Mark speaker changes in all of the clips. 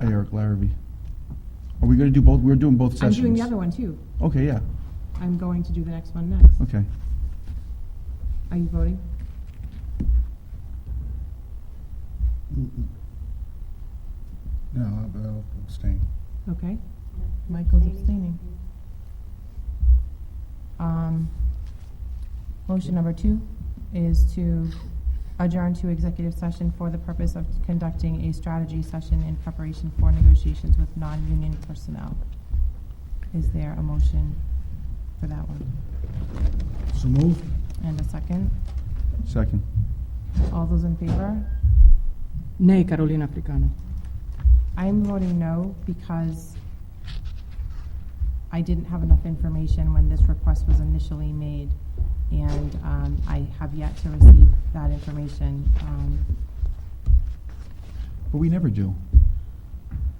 Speaker 1: Eric Larrabee. Are we gonna do both? We're doing both
Speaker 2: I'm
Speaker 1: sessions.
Speaker 2: doing the other one too.
Speaker 1: Okay, yeah,
Speaker 2: I'm going to do the next one next.
Speaker 1: okay.
Speaker 2: Are you voting?
Speaker 3: No, I'll- I'll abstain.
Speaker 2: Okay. Michael's abstaining.
Speaker 4: Um, Motion number two is to adjourn to executive session for the purpose of conducting a strategy session in preparation for negotiations with non-union personnel. Is there a motion for that one?
Speaker 3: So moved?
Speaker 4: And a second?
Speaker 1: Second.
Speaker 4: All those in favor?
Speaker 5: Nay, Carolina Africano.
Speaker 4: I'm voting no because I didn't have enough information when this request was initially made, and um, I have yet to receive that information. Um,
Speaker 1: But we never do.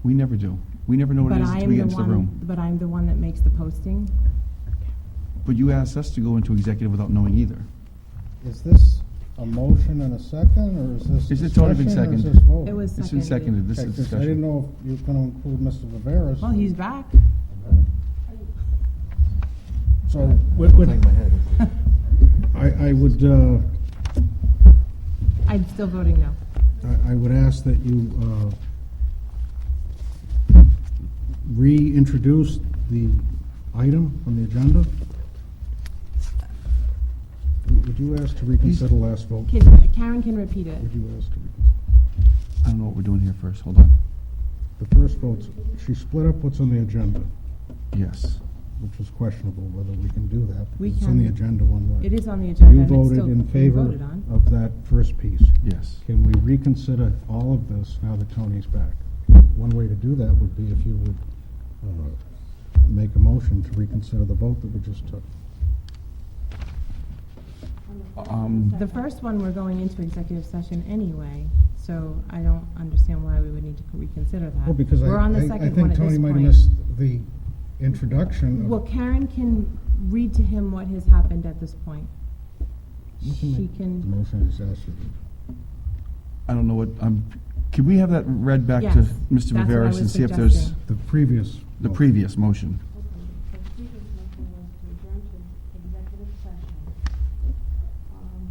Speaker 1: We never do. We never know what
Speaker 2: But
Speaker 1: it is
Speaker 2: I
Speaker 1: until we
Speaker 2: am
Speaker 1: get
Speaker 2: the
Speaker 1: into the
Speaker 2: one,
Speaker 1: room.
Speaker 2: but I'm the one that makes the posting.
Speaker 1: But you asked us to go into executive without knowing either.
Speaker 3: Is this a motion and a second, or is this
Speaker 1: Is it already
Speaker 3: discussion,
Speaker 1: been
Speaker 3: or is
Speaker 1: seconded?
Speaker 3: this vote?
Speaker 2: It was
Speaker 1: It's been seconded,
Speaker 2: Seconded.
Speaker 1: this
Speaker 3: Okay,
Speaker 1: is
Speaker 3: 'cause I
Speaker 1: discussion.
Speaker 3: didn't know if you were going to include Mr. Viveras.
Speaker 2: Well, he's back.
Speaker 3: So, what would, I, I would, uh,
Speaker 2: I'm still voting no.
Speaker 3: I, I would ask that you, uh, reintroduce the item on the agenda. Would you ask to reconsider last vote?
Speaker 2: Can- Karen can repeat it.
Speaker 3: Would you ask to reconsider?
Speaker 1: I don't know what we're doing here first, hold on.
Speaker 3: The first vote's, she split up what's on the agenda,
Speaker 1: Yes.
Speaker 3: which was questionable whether we can do that.
Speaker 2: We
Speaker 3: It's on the
Speaker 2: can.
Speaker 3: agenda one way.
Speaker 2: It is on the agenda. and
Speaker 3: You
Speaker 2: it's
Speaker 3: voted
Speaker 2: still-
Speaker 3: in
Speaker 2: you
Speaker 3: favor
Speaker 2: voted on.
Speaker 3: of that first piece.
Speaker 1: Yes.
Speaker 3: Can we reconsider all of this now that Tony's back? One way to do that would be if you would uh, make a motion to reconsider the vote that we just took.
Speaker 1: Um,
Speaker 2: The first one, we're going into executive session anyway, so I don't understand why we would need to reconsider that.
Speaker 3: Well, because I,
Speaker 2: We're on the
Speaker 3: I- I
Speaker 2: second one
Speaker 3: think
Speaker 2: at this
Speaker 3: Tony might have
Speaker 2: point.
Speaker 3: missed the introduction
Speaker 2: Well,
Speaker 3: of,
Speaker 2: Karen can read to him what has happened at this point.
Speaker 3: You can
Speaker 2: She
Speaker 3: make the
Speaker 2: can,
Speaker 3: motion is asked.
Speaker 1: I don't know what, um, can we have that read back to
Speaker 2: Yes,
Speaker 1: Mr.
Speaker 2: that's what I
Speaker 1: Viveras
Speaker 2: was
Speaker 1: and see if there's
Speaker 2: suggesting.
Speaker 3: The previous.
Speaker 1: the
Speaker 3: motion.
Speaker 1: previous motion?
Speaker 6: The previous motion was to adjourn to executive session um,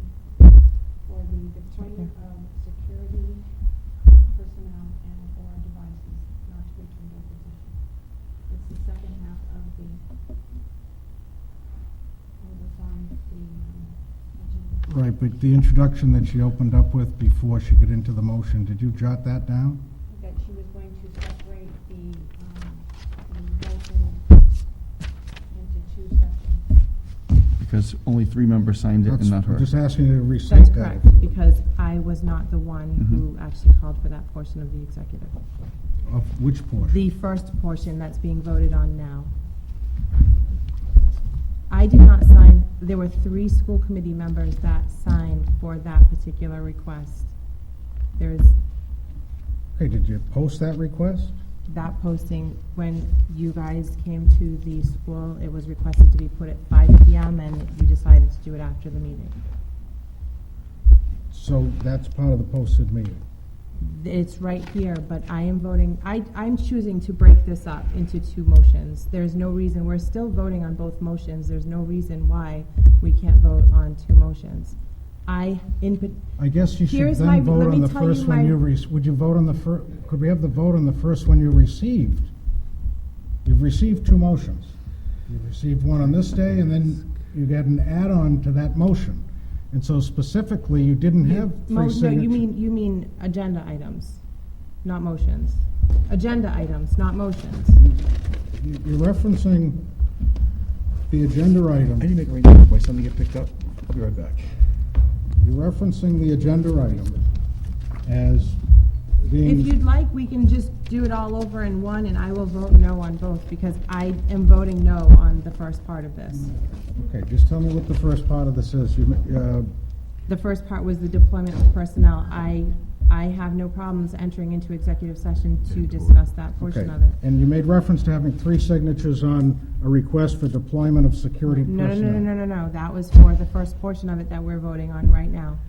Speaker 6: for the deployment of security personnel and/or devices not to return to open session. It's the second half of the, what was on the um, agenda.
Speaker 3: Right, but the introduction that she opened up with before she got into the motion, did you jot that down?
Speaker 6: That she was going to separate the, um, the motion into two sections.
Speaker 1: Because only three members signed it and
Speaker 3: That's-
Speaker 1: not her.
Speaker 3: I'm just asking you to
Speaker 2: that's
Speaker 3: restate that.
Speaker 2: correct, because I was not the one
Speaker 3: Mm-hmm.
Speaker 2: who
Speaker 1: Mhm.
Speaker 2: actually called for that portion of the executive.
Speaker 3: Of which
Speaker 2: The
Speaker 3: portion?
Speaker 2: first portion that's being voted on now. I did not sign, there were three school committee members that signed for that particular request. There is,
Speaker 3: Okay, did you post that request?
Speaker 2: that posting, when you guys came to the school, it was requested to be put at five PM, and you decided to do it after the meeting.
Speaker 3: So that's part of the posted meeting.
Speaker 2: It's right here, but I am voting, I, I'm choosing to break this up into two motions. There's no reason, we're still voting on both motions, there's no reason why we can't vote on two motions. I, in, pa-
Speaker 3: I guess you should
Speaker 2: Here's my-
Speaker 3: then vote
Speaker 2: let me
Speaker 3: on the
Speaker 2: tell you
Speaker 3: first one
Speaker 2: my-
Speaker 3: you received. Would you vote on the fir, could we have the vote on the first one you received? You've received two motions. You received one on this day, and then you got an add-on to that motion. And so specifically, you didn't have
Speaker 2: mo-
Speaker 3: three
Speaker 2: no,
Speaker 3: signatures.
Speaker 2: you mean, you mean agenda items, not motions. Agenda items, not motions.
Speaker 3: You- You're referencing the agenda item.
Speaker 7: I need to make arrangements for my son to get picked up. I'll be right back.
Speaker 3: You're referencing the agenda item as
Speaker 2: If you'd
Speaker 3: being,
Speaker 2: like, we can just do it all over in one, and I will vote no on both, because I am voting no on the first part of this.
Speaker 3: Mm. okay, just tell me what the first part of this is. You, ma- uh,
Speaker 2: The first part was the deployment of personnel. I, I have no problems entering into executive session to discuss that
Speaker 3: okay.
Speaker 2: portion of it.
Speaker 3: And you made reference to having three signatures on a request for deployment of security
Speaker 2: No,
Speaker 3: personnel.
Speaker 2: no, no, no, no, no, no. that was for the first portion of it that we're voting on right now.